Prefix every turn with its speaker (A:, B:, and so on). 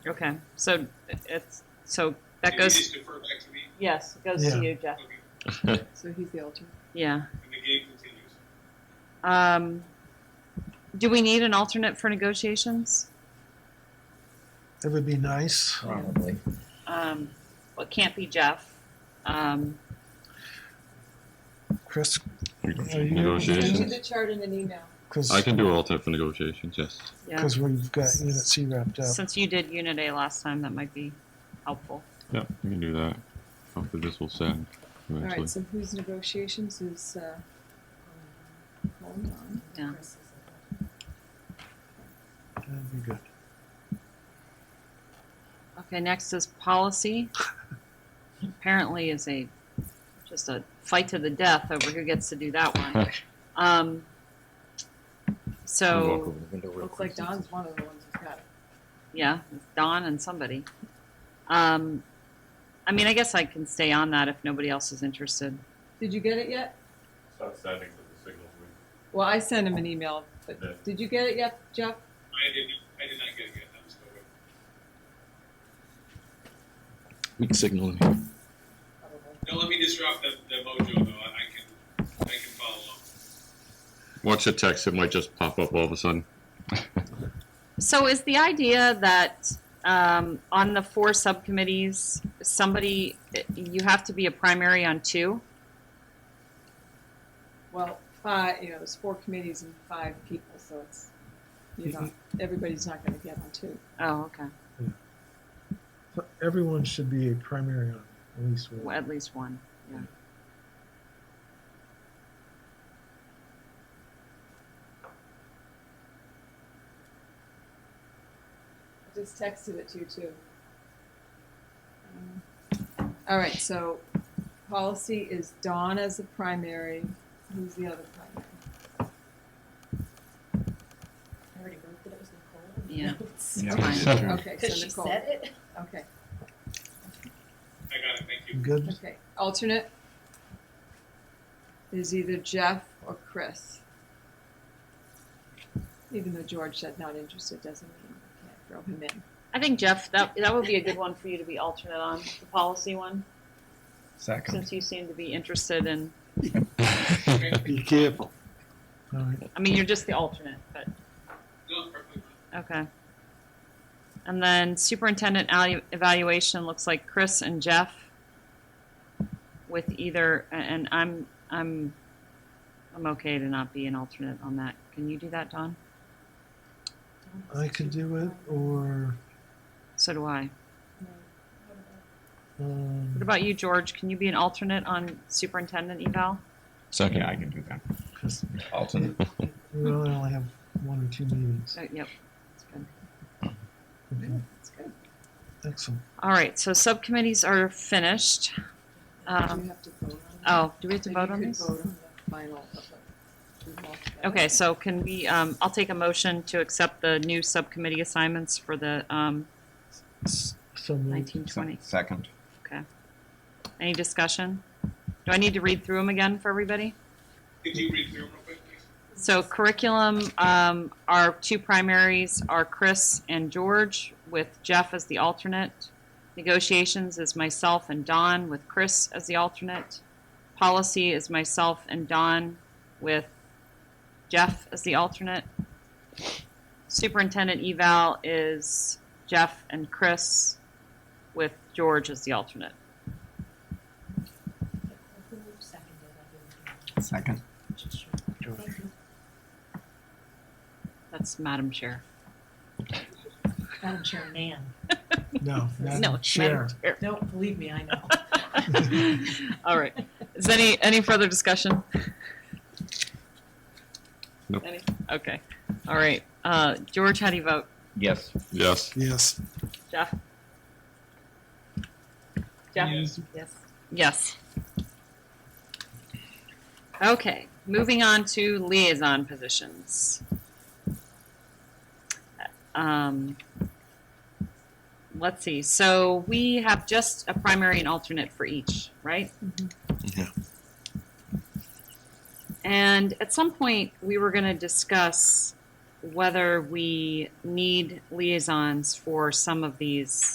A: Okay, so it's, so that
B: Can you
A: goes,
B: just defer back to me?
A: yes, it goes to
C: Yeah.
A: you, Jeff.
B: Okay,
D: So he's the alternate.
A: Yeah.
B: and the game continues.
A: Um, do we need an alternate for negotiations?
C: That would be nice.
E: Probably.
A: Um, well, it can't be Jeff. Um,
C: Chris,
F: Neg-
C: Are you-
D: Send you
F: Negotiations?
D: the chart in an email.
C: because,
F: I can do alternate for negotiations, yes.
A: yeah,
C: because we've got Unit C wrapped up.
A: since you did Unit A last time, that might be helpful.
F: Yeah, we can do that. Hopefully this will send
D: All
F: eventually.
D: right, so whose negotiations is, uh, um, hold on.
A: Yeah.
D: Chris is-
C: That'd be good.
A: Okay, next is policy. Apparently is a, just a fight to the death over who gets to do that one. Um,
E: Can you
A: so.
E: walk over the window real
D: Looks
E: quick?
D: like Don's one of the ones who's got it.
A: Yeah, it's Don and somebody. Um, I mean, I guess I can stay on that if nobody else is interested.
D: Did you get it yet?
G: Stop sending to the signal. We-
D: Well, I sent him an email,
G: Yeah.
D: but did you get it yet, Jeff?
B: I did, I did not get it yet, I'm still waiting.
E: We can signal in here.
B: No, let me disrupt the, the mojo though, I I can, I can follow up.
F: Watch the text, it might just pop up all of a sudden.
A: So, is the idea that um, on the four subcommittees, somebody you have to be a primary on two?
D: Well, five, you know, it's four committees and five people, so it's, you know, everybody's not gonna get on two.
A: Oh, okay.
C: So Everyone should be a primary on at least
A: Well,
C: one.
A: at least one. Yeah.
D: I just texted it to you too. Um, All right, so policy is Dawn as the primary. Who's the other primary?
H: I already wrote that it was Nicole. in the
A: Yeah.
H: notes.
A: Yeah. fine.
D: Okay,
H: Because
D: so
H: she
D: Nicole.
H: said it.
D: Okay,
B: I got it, thank you.
C: Good?
D: okay. Alternate is either Jeff or Chris. Even though George said not interested, doesn't mean we can't throw him in.
A: I think Jeff, that that would be a good one for you to be alternate on the policy one,
E: Second.
A: since you seem to be interested in.
C: Be careful. All right,
A: I mean, you're just the alternate, but.
B: No, perfectly.
A: Okay. And then superintendent alu- evaluation looks like Chris and Jeff with either, and I'm, I'm, I'm okay to not be an alternate on that. Can you do that, Don?
C: I could do it, or,
A: So do I. What
C: um,
A: about you, George? Can you be an alternate on superintendent eval?
E: Second.
I: Yeah, I can do that.
C: 'cause
I: Alternate.
C: we really only have one or two meetings.
A: Oh, yep. That's good.
C: Okay,
D: That's good.
C: excellent.
A: All right, so subcommittees are finished.
D: Do you
A: Um,
D: have to vote on that?
A: oh, do we have to
D: Maybe
A: vote
D: you
A: on
D: could
A: these?
D: vote on the final of the- we've all got it.
A: Okay, so can we, um, I'll take a motion to accept the new subcommittee assignments for the, um,
C: So moved.
A: nineteen twenty.
I: Second.
A: Okay. Any discussion? Do I need to read through them again for everybody?
B: Could you read through real quick, please?
A: So curriculum, um, our two primaries are Chris and George, with Jeff as the alternate. Negotiations is myself and Don, with Chris as the alternate. Policy is myself and Don, with Jeff as the alternate. Superintendent eval is Jeff and Chris, with George as the alternate.
H: Who seconded it?
I: Second.
H: I didn't- Sure. Thank you.
A: That's Madam Chair.
H: Madam Chairman.
C: No,
A: No,
C: Madam
A: it's Madam
C: Chair.
A: Chair.
H: No, believe me, I know.
A: All right. Is any, any further discussion?
F: Nope.
A: Any? Okay. All right. Uh, George, how do you vote?
I: Yes.
F: Yes,
C: Yes.
A: Jeff? Jeff?
B: Yes.
A: Yes. Yes. Okay, moving on to liaison positions. Um, let's see, so we have just a primary and alternate for each, right?
E: Yeah.
A: And at some point, we were gonna discuss whether we need liaisons for some of these